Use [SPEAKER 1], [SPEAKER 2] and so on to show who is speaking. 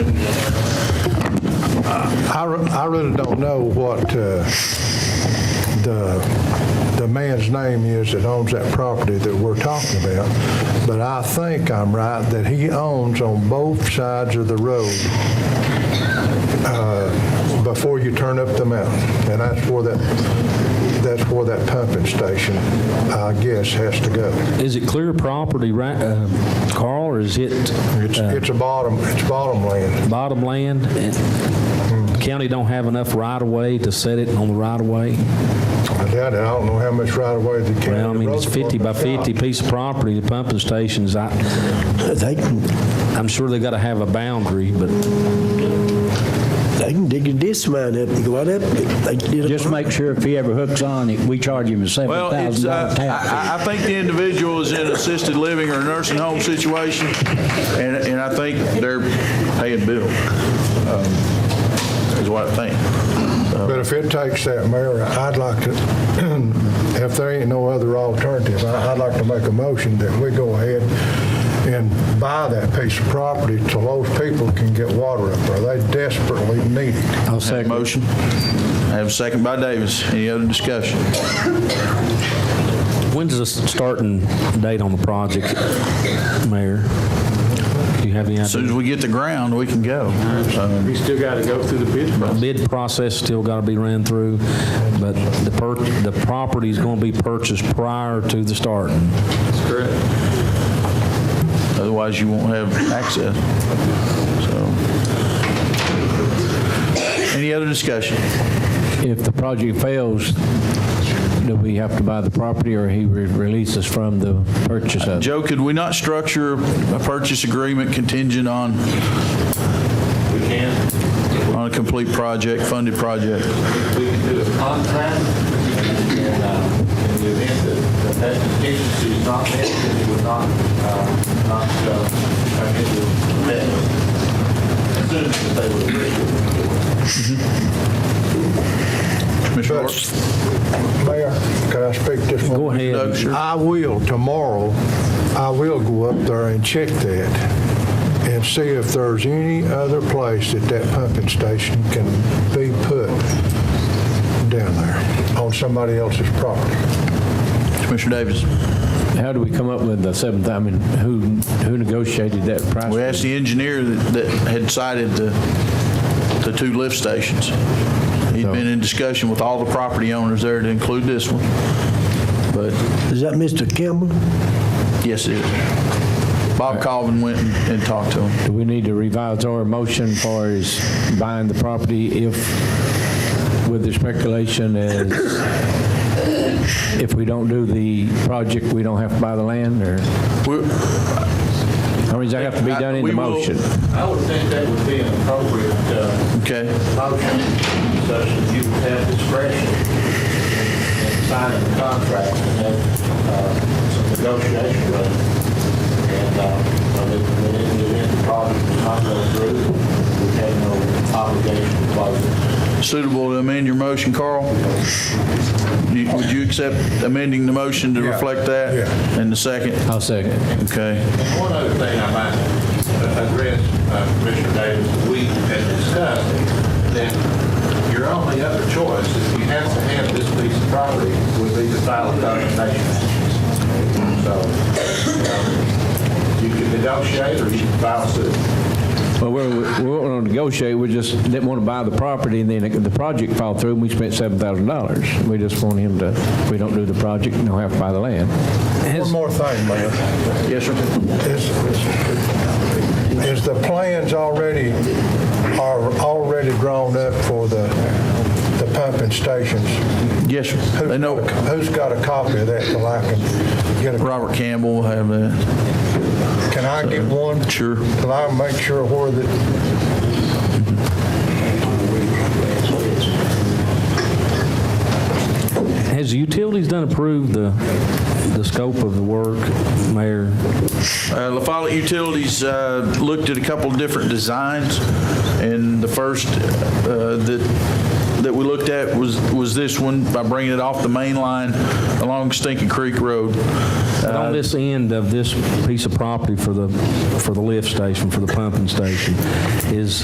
[SPEAKER 1] I, re- I really don't know what uh, the, the man's name is that owns that property that we're talking about, but I think I'm right that he owns on both sides of the road uh, before you turn up the mountain. And that's where that, that's where that pumping station, I guess, has to go.
[SPEAKER 2] Is it clear property, right, uh, Carl, or is it
[SPEAKER 1] It's, it's a bottom, it's bottom land.
[SPEAKER 2] bottom land? County don't have enough right-of-way to set it on the right-of-way?
[SPEAKER 1] I doubt it. I don't know how much right of way the county.
[SPEAKER 2] Well, I mean,
[SPEAKER 1] road
[SPEAKER 2] it's 50 by
[SPEAKER 1] department's
[SPEAKER 2] 50
[SPEAKER 1] got.
[SPEAKER 2] piece of property, the pumping stations, I,
[SPEAKER 3] They can,
[SPEAKER 2] I'm sure they gotta have a boundary, but
[SPEAKER 3] they can dig a disc mine up and go right up. They did a-
[SPEAKER 4] Just make sure if he ever hooks on, it- we charge him a
[SPEAKER 5] Well, it's,
[SPEAKER 4] $7,000
[SPEAKER 5] uh,
[SPEAKER 4] tax.
[SPEAKER 5] I, I- I think the individual is in assisted living or nursing home situation, and, and I think they're paying bill, um, is what I think.
[SPEAKER 1] But if it takes that, Mayor, I'd like to, if there ain't no other alternative, I- I'd like to make a motion that we go ahead and buy that piece of property till those people can get water up there. They desperately need it.
[SPEAKER 2] I'll
[SPEAKER 5] Have a
[SPEAKER 2] second.
[SPEAKER 5] Motion. I have a second by Davis. Any other discussion?
[SPEAKER 2] When's the starting date on the project, Mayor? Do you have any
[SPEAKER 5] As soon as
[SPEAKER 2] idea?
[SPEAKER 5] we get the ground, we can go. Uh, So,
[SPEAKER 6] We still got to go through the bid process.
[SPEAKER 2] Bid process still gotta be ran through, but the per, the property's gonna be purchased prior to the starting.
[SPEAKER 6] That's correct.
[SPEAKER 5] Otherwise, you won't have access. So, Any other discussion?
[SPEAKER 4] If the project fails, do we have to buy the property, or he re- releases from the purchase of it?
[SPEAKER 5] Joe, could we not structure a purchase agreement contingent on?
[SPEAKER 6] We can,
[SPEAKER 5] on a complete project, funded project.
[SPEAKER 6] we can do a contract, and uh, in the event that that contingency is not met, then it would not, uh, not, uh, I guess, it would be met. Assuming that they would agree with it.
[SPEAKER 5] Commissioner
[SPEAKER 1] But-
[SPEAKER 5] Hart?
[SPEAKER 1] Mayor, can I speak just one?
[SPEAKER 2] Go ahead.
[SPEAKER 5] No, sure.
[SPEAKER 1] I will tomorrow, I will go up there and check that and see if there's any other place that that pumping station can be put down there on somebody else's property.
[SPEAKER 5] Commissioner Davis.
[SPEAKER 4] How do we come up with the seven, thou- I mean, who, who negotiated that price?
[SPEAKER 5] We asked the engineer that that had cited the, the two lift stations. He'd been in discussion with all the property owners there to include this one. But,
[SPEAKER 3] Is that Mr. Campbell?
[SPEAKER 5] yes, it is. Bob Calvin went and and talked to him.
[SPEAKER 4] Do we need to revise our motion for is buying the property if, with the speculation as, if we don't do the project, we don't have to buy the land, or,
[SPEAKER 5] We're-
[SPEAKER 4] I mean, does that have to be done in
[SPEAKER 5] We
[SPEAKER 4] the
[SPEAKER 5] will-
[SPEAKER 4] motion?
[SPEAKER 6] I would think that would be an appropriate uh,
[SPEAKER 5] Okay,
[SPEAKER 6] motion, such that you would have discretion in in signing the contract and have uh, some negotiation with it. And, uh, I mean, when in the event the project does not go through, we have no obligation to close it.
[SPEAKER 5] suitable to amend your motion, Carl? You- Would you accept amending the motion to reflect that?
[SPEAKER 1] yeah.
[SPEAKER 5] And the second?
[SPEAKER 4] I'll second.
[SPEAKER 5] Okay.
[SPEAKER 6] And one other thing I might uh, address, uh, Commissioner Davis, that we had discussed, that your only other choice, if you have to have this piece of property, would be to file a condemnation action. So um, you can negotiate or you can file suit.
[SPEAKER 4] Well, we're, we won't want to negotiate, we just didn't want to buy the property, and then the project fell through, and we spent $7,000. We just want him to, if we don't do the project, we don't have to buy the land.
[SPEAKER 1] One more thing, Mayor.
[SPEAKER 5] Yes, sir.
[SPEAKER 1] Is, is the plans already, are already drawn up for the, the pumping stations?
[SPEAKER 5] Yes, sir.
[SPEAKER 1] Who's
[SPEAKER 5] They know,
[SPEAKER 1] got a- Who's got a copy of that till I can get a,
[SPEAKER 5] Robert Campbell will have that.
[SPEAKER 1] can I get one?
[SPEAKER 5] Sure.
[SPEAKER 1] Till I make sure where the,
[SPEAKER 2] Has the utilities done approved the, the scope of the work, Mayor?
[SPEAKER 5] Uh, La Follette Utilities uh, looked at a couple of different designs, and the first uh, that, that we looked at was, was this one by bringing it off the main line along Stinking Creek Road.
[SPEAKER 2] But on this end of this piece of property for the, for the lift station, for the pumping station, is,